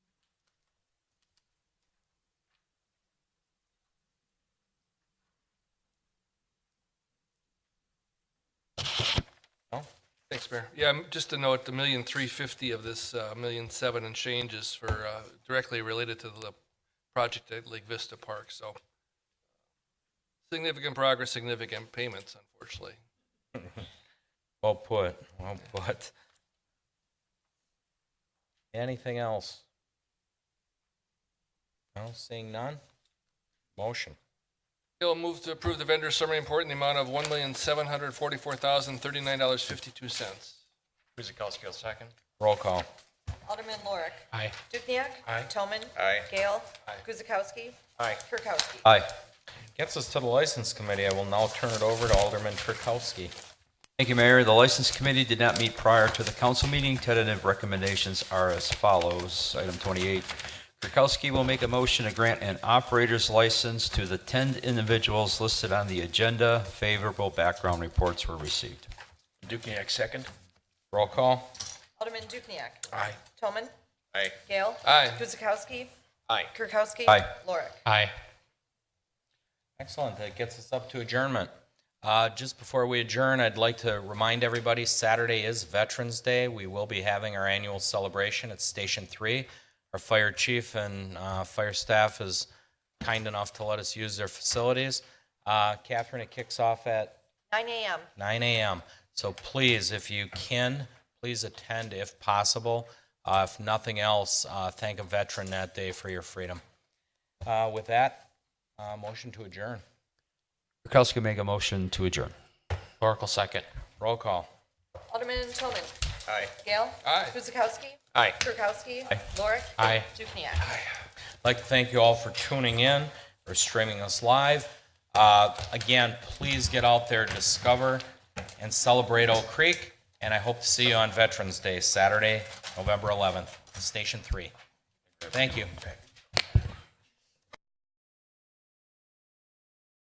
Thanks, Mayor. Yeah, m- just to note, the million three fifty of this uh, million seven and change is for, uh, directly related to the project at Lake Vista Park, so significant progress, significant payments, unfortunately. Well put, well put. Anything else? No, seeing none? Motion. Bill, move to approve the vendor summary report in the amount of one million seven hundred forty-four thousand thirty-nine dollars fifty-two cents. Kuzikowski will second. Roll call. Alderman Lorik. Aye. Dukniak. Aye. Toman. Aye. Gale. Aye. Guzekowski. Aye. Kirkowski. Aye. Gets us to the License Committee. I will now turn it over to Alderman Kirkowski. Thank you, Mayor. The License Committee did not meet prior to the council meeting. Tentative recommendations are as follows. Item 28, Kirkowski will make a motion to grant an operator's license to the 10 individuals listed on the agenda. Favorable background reports were received. Dukniak second. Roll call. Alderman Dukniak. Aye. Toman. Aye. Gale. Aye. Guzekowski. Aye. Kirkowski. Aye. Lorik. Aye. Excellent. That gets us up to adjournment. Uh, Just before we adjourn, I'd like to remind everybody, Saturday is Veterans Day. We will be having our annual celebration at Station 3. Our fire chief and uh, fire staff is kind enough to let us use their facilities. Uh, Catherine, it kicks off at 9 a.m. 9 a.m. So please, if you can, please attend if possible. Uh, If nothing else, uh, thank a veteran that day for your freedom. Uh, With that, uh, motion to adjourn. Kirkowski make a motion to adjourn. Oracle second. Roll call. Alderman Toman. Aye. Gale. Aye. Guzekowski. Aye. Kirkowski. Lorik. Aye. Dukniak. I'd like to thank you all for tuning in or streaming us live. Uh, Again, please get out there, discover and celebrate Oak Creek, and I hope to see you on Veterans Day, Saturday, November 11th, Station 3. Thank you.